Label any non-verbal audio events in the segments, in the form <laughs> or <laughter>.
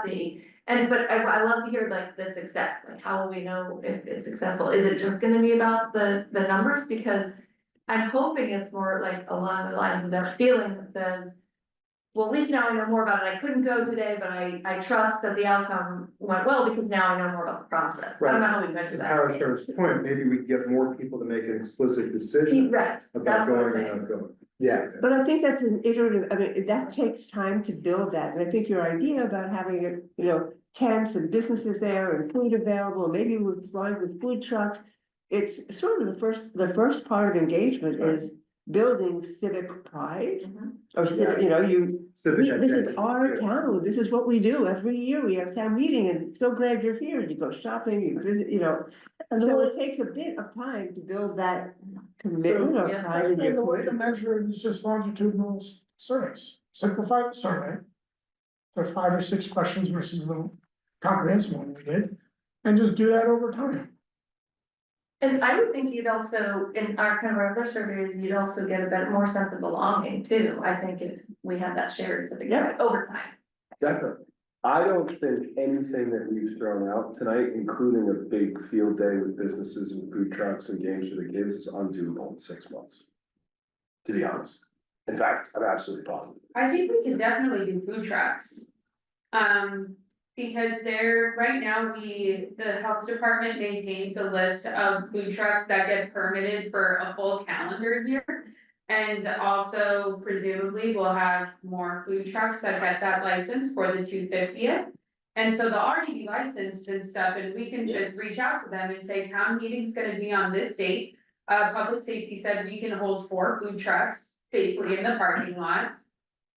capacity. And but I I love to hear like the success, like how will we know if it's successful? Is it just gonna be about the the numbers? Because I'm hoping it's more like along the lines of that feeling that says. Well, at least now I know more about it. I couldn't go today, but I I trust that the outcome went well because now I know more about the process. I don't know how we To measure that. Power Sharon's point, maybe we get more people to make an explicit He- decision Right, about that's what going I'm or saying. not going. Yeah. But I think that's an iterative, I mean, that takes time to build that, and I think your idea about having, you know, tents and businesses there and food available, maybe with flying with food trucks. It's sort of the first, the first part of engagement is building civic pride, Mhm. or civic, you know, you, Civic we- this is identity, our yeah. town, this is what we do, every year we have town meeting, and so glad you're here, you go shopping, you visit, you know. So it takes a bit of time to build that commitment of Yeah. pride in your. And the way to community. measure it is just longitudinal s- surveys, simplify the survey. There are five or six questions versus the comprehensive one we did, and just do that over time. And I would think you'd also, in our kind of our other surveys, you'd also get a bit more sense of belonging too, I think if we had that shared civic pride over time. Definitely. I don't think anything that we've thrown out tonight, including a big field day with businesses and food trucks and games for the kids is undoable in six months. To be honest. In fact, I'm absolutely positive. I think we can definitely do food trucks. Um, because there, right now, we, the health department maintains a list of food trucks that get permitted for a full calendar year. And also presumably we'll have more food trucks that get that license for the two fiftieth. And so they'll already be licensed and stuff, and we can just reach out to them and say, town meeting's gonna be on this date. Uh, public safety said we can hold four food trucks safely in the parking lot.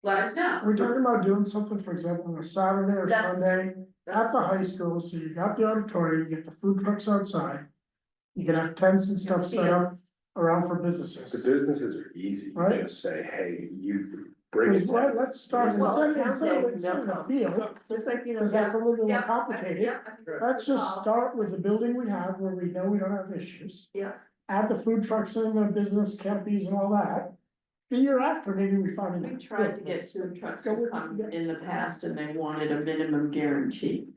Let us know. We're talking about doing something, for example, on a Saturday or That's- Sunday That's- at the high school, so you got the auditorium, you get the food trucks outside. You can have tents and stuff set up around for The businesses. businesses are easy. You Right. Just say, hey, you bring it. Because let- Let's start, Well, instead of, town instead of, meeting, instead of no. a field, So it's like, you know, because that's a little bit Yeah, more I- complicated. yeah, I think that's a Let's good just call. start with the building we have where we know we don't have issues. Yeah. Add the food trucks in, the business canopies and all that. The year after, maybe we find. We tried to get food trucks So we- to come in the past and they wanted a minimum guarantee.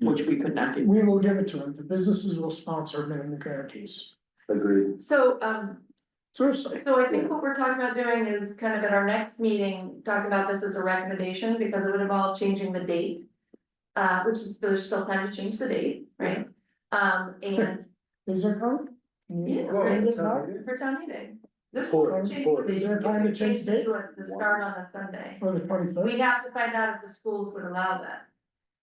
Which we could not do. We will give it to them, the businesses will sponsor minimum guarantees. Agreed. So, um, Seriously, so I think what we're talking about doing is kind of at our next meeting, talking about this as a recommendation, because it would involve changing the date. Uh, which is, there's still time to change the date, right? Um, and, is there time? Can you- yeah, Well, right, it's not- for town meeting. There's For- time to change for- the date. Is there time to change the date? Change it to The start on the Sunday. For the twenty We third, have to find out if the schools would allow that.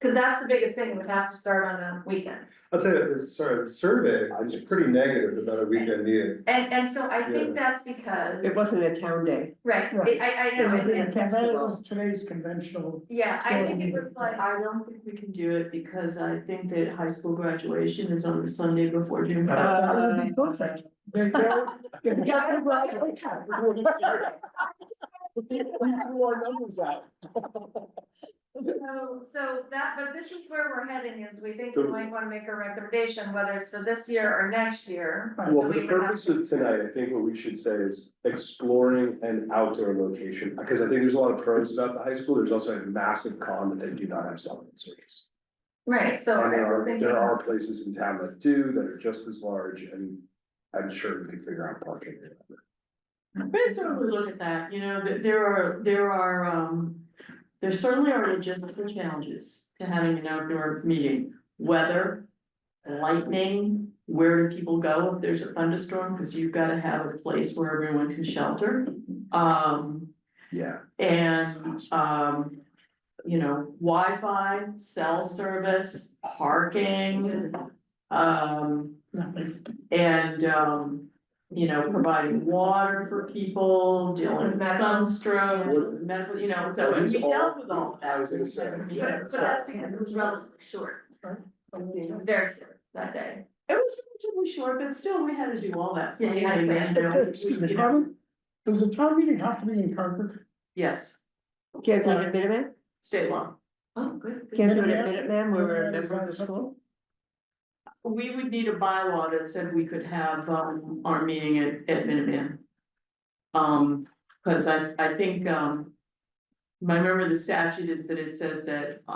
Cause that's the biggest thing, it would have to start on a weekend. I'll tell you, the- sorry, the survey was pretty negative about a weekend meeting. And, and so I think that's It because, wasn't a town day. right, Right. I, I it know, was, and- and- that was today's conventional, yeah, I think it was <laughs> like, I don't think we can do it because I think that high school graduation is on the Sunday before June. that <laughs> Uh, would be perfect. They go, they <laughs> go, well, we can, we're doing this year. So, so that, but this is where we're heading is we think we might wanna make a recommendation, whether it's for this year or next year. Right. Well, So for we would the have purpose to- of tonight, I think what we should say is exploring an outdoor location, because I think there's a lot of pros about the high school, there's also a massive con that they do not have cell phone service. Right, so I And there was are, thinking, there are places in town that do, that are just as large, and I'm sure we can figure out parking. But it's sort of a look at that, you know, that there are, there are, um, there certainly are logistical challenges to having an outdoor meeting. Weather, lightning, where do people go if there's a thunderstorm, because you've gotta have a place where everyone can shelter. Um, Yeah. and, um, you know, Wi-Fi, cell service, parking. Um, and, um, you know, providing water for people, dealing with Medical. sunstroke, with medical, you know, so and we These dealt with all of that. I was gonna say, yeah. but, but that's because it was relatively short, it was very short that day. It was relatively short, but still, we had to do all that. Yeah, you had to planning and, you know, Excuse you me, know, Carmen, does the town meeting have to be in Concord? Yes, Can't do it at Minuteman, state law. Oh, good. good. can't do it at Minuteman? Minuteman, where we're a Minuteman is member not of the school. We would need a bylaw that said we could have um our meeting at at Minuteman. Um, cause I I think um. My memory of the statute is that it says that